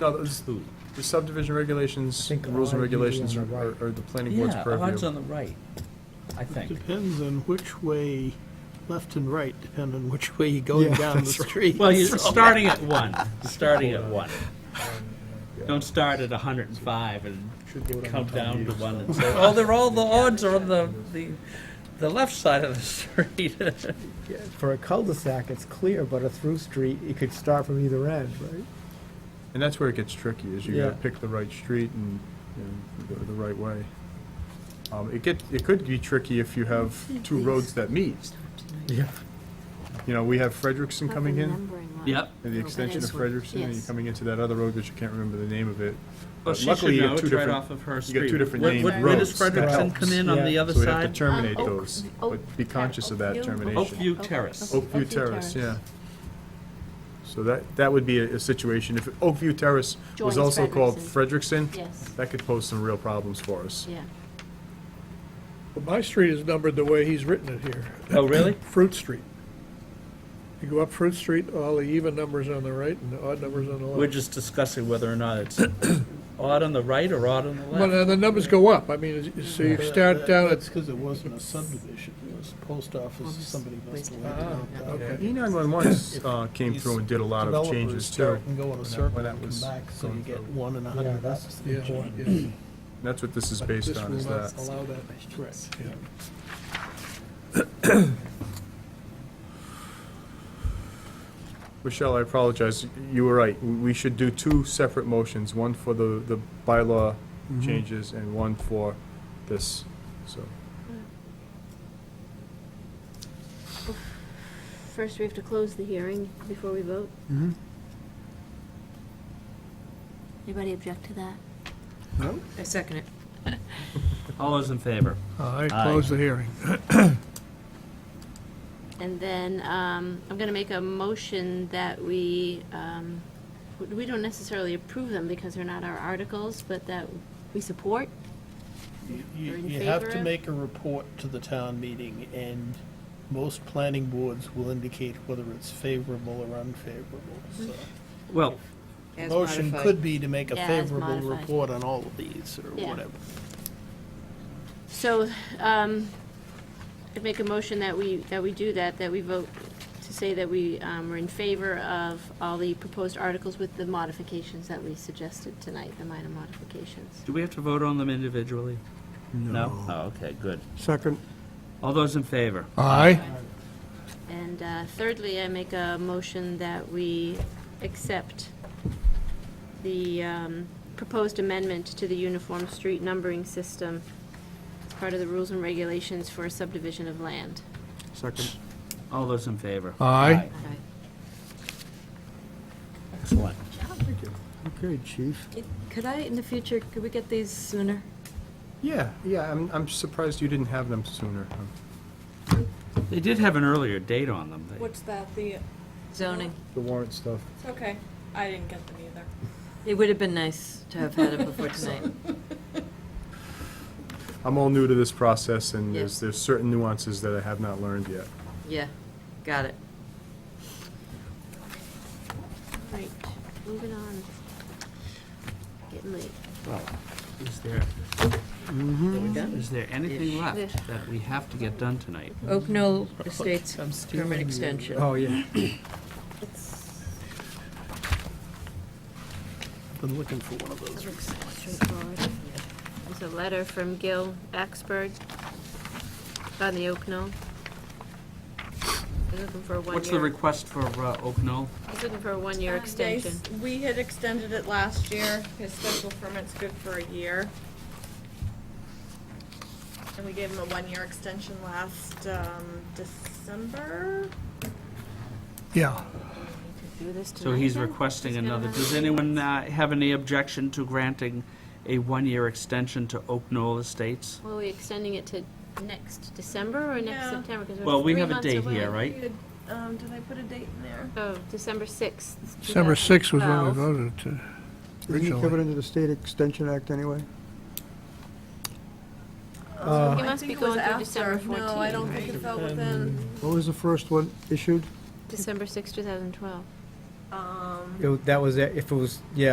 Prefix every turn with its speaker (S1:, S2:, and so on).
S1: No, those- the subdivision regulations,
S2: think
S1: the rules and
S2: odd would be on
S1: regulations
S2: the
S1: are,
S2: right.
S1: are are the planning board's
S3: Yeah, odds
S1: purview.
S3: on the right, I think.
S4: Depends on which way, left and right, depend on which way you're going
S2: Yeah,
S4: down the
S2: that's right.
S4: street.
S3: Well, you're
S4: So-
S3: starting at one, starting at one. Don't start at hundred and five and come down to one and say, oh, they're all, the odds are on the, the, the left side of the street.
S2: Yeah, For a cul-de-sac, it's clear, but a through street, you could start from either end, right?
S1: And that's where it gets tricky, is you gotta
S2: Yeah.
S1: pick the right street and, and go the right way. Um, it get, it could be tricky if you have two roads that meet.
S2: Yeah.
S1: You know, we have Frederickson coming in,
S3: Yep.
S1: and the extension of Frederickson, and you're coming into that other road, which you can't remember the name of it.
S3: Well,
S1: But
S3: she should
S1: luckily, you
S3: know,
S1: have two
S3: it's right
S1: different-
S3: off of her
S1: you
S3: street.
S1: got two different
S3: When-
S1: named
S3: when- When does
S1: roads that
S3: Frederickson come in on
S2: helps.
S3: the other
S1: So we have to
S3: side?
S1: terminate
S5: Um, Oak-
S1: those,
S5: Oak-
S1: but be conscious of that
S5: Oakview?
S1: termination.
S3: Oakview Terrace.
S1: Oakview Terrace, yeah. So that, that would be a, a situation, if Oakview Terrace was
S5: Joins
S1: also called Frederickson,
S5: Yes,
S1: that could pose some real problems for us.
S5: yeah.
S6: But my street is numbered the way he's written it here,
S3: Oh, really?
S6: Fruit Street. You go up Fruit Street, all the even numbers on the right and the odd numbers on the
S3: We're
S6: left.
S3: just discussing whether or not it's odd on the right or odd on the
S6: Well,
S3: left.
S6: now the numbers go up, I mean, it's- so you
S4: But
S6: start
S4: Uh, that-
S6: down
S4: That's
S6: at,
S4: because it wasn't a subdivision, it was post office, somebody must have.
S6: Ah, okay.
S1: E nine-one-one, uh, came through and did a lot of changes too.
S4: And go in a
S1: that-
S4: circle
S1: when
S4: and
S1: that
S4: come
S1: was
S4: back, so
S1: going
S4: you get
S1: through.
S4: one and a
S2: Yeah,
S4: hundred.
S2: that's
S6: yeah,
S2: important.
S6: yeah.
S1: That's what this is
S6: But
S1: based
S6: this
S1: on,
S6: will
S1: is that.
S6: not Allow that, correct, yeah.
S1: Michelle, I apologize, you were right, we we should do two separate motions, one for the, the bylaw changes and one for this, so.
S5: First, we have to close the hearing before we vote.
S1: Mm-hmm.
S5: Anybody object to that?
S7: I second it.
S3: All those in favor?
S6: I close the hearing.
S5: And then um, I'm going to make a motion that we, um, we don't necessarily approve them because they're not our articles, but that we support.
S4: You- You,
S5: Or in
S4: you have
S5: favor
S4: to
S5: of?
S4: make a report to the town meeting, and most planning boards will indicate whether it's favorable or unfavorable, so.
S5: Mm-hmm.
S3: Well,
S7: As
S4: Motion
S7: modified.
S4: could be to make a
S5: Yeah, as
S4: favorable
S5: modified.
S4: report on all of these, or
S5: Yeah.
S4: whatever.
S5: So um, I'd make a motion that we, that we do that, that we vote to say that we um, are in favor of all the proposed articles with the modifications that we suggested tonight, the minor modifications.
S3: do we have to vote on them individually? No? Oh, okay, good.
S2: Second.
S3: All those in favor?
S6: Aye.
S5: And uh, thirdly, I make a motion that we accept the um, proposed amendment to the uniform street numbering system as part of the rules and regulations for subdivision of land.
S2: Second.
S3: All those in favor?
S6: Aye.
S7: Aye.
S3: Excellent.
S2: Okay, chief.
S7: It- Could I, in the future, could we get these sooner?
S1: Yeah, yeah, I'm, I'm surprised you didn't have them sooner.
S3: They did have an earlier date on them. They-
S8: What's that? The,
S7: Zoning.
S1: The warrant stuff.
S8: it's okay. I didn't get them either.
S7: It would have been nice to have had it before tonight.
S1: I'm all new to this process, and
S7: Yeah.
S1: there's, there's certain nuances that I have not learned yet.
S7: Yeah, got it.
S5: Right, moving on. Getting late.
S3: Well, is there, is there anything left that we have to get done tonight?
S7: Oak Knoll Estates permit extension.
S2: Oh, yeah.
S5: It's
S4: Been looking for one of those.
S5: straightforward. There's a letter from Gil Axberg on the Oak Knoll. He's looking for a
S3: What's the
S5: one-year,
S3: request for uh, Oak Knoll?
S5: he's looking for a one-year
S8: Um, they s-
S5: extension.
S8: We had extended it last year. His special permit's good for a year. And we gave him a one-year extension last, um, December.
S6: Yeah.
S5: Do this
S3: So he's
S5: tonight then?
S3: requesting
S5: He's gonna
S3: another,
S5: have
S3: does
S5: to-
S3: anyone uh, have any objection to granting a one-year extension to Oak Knoll Estates?
S5: Well, we extending it to next December or next
S8: Yeah.
S5: September? 'Cause we're
S3: Well, we
S5: three
S3: have a
S5: months
S3: date
S5: away.
S3: here, right?
S8: We had, Um, did I put a date in there?
S5: Oh, December sixth. Uh,
S6: December 6th was when we
S5: 2012.
S6: voted to
S9: Isn't it covered
S6: originally.
S9: under the State Extension Act anyway?
S5: He
S8: I
S5: must
S8: think
S5: be
S8: it was
S5: going through
S8: after.
S5: December
S8: No, I don't
S5: 14,
S8: think
S5: right?
S8: it fell within,
S9: What was the first one issued?
S5: December sixth, two thousand twelve.
S8: um.
S2: It- That was, it. if it was, yeah,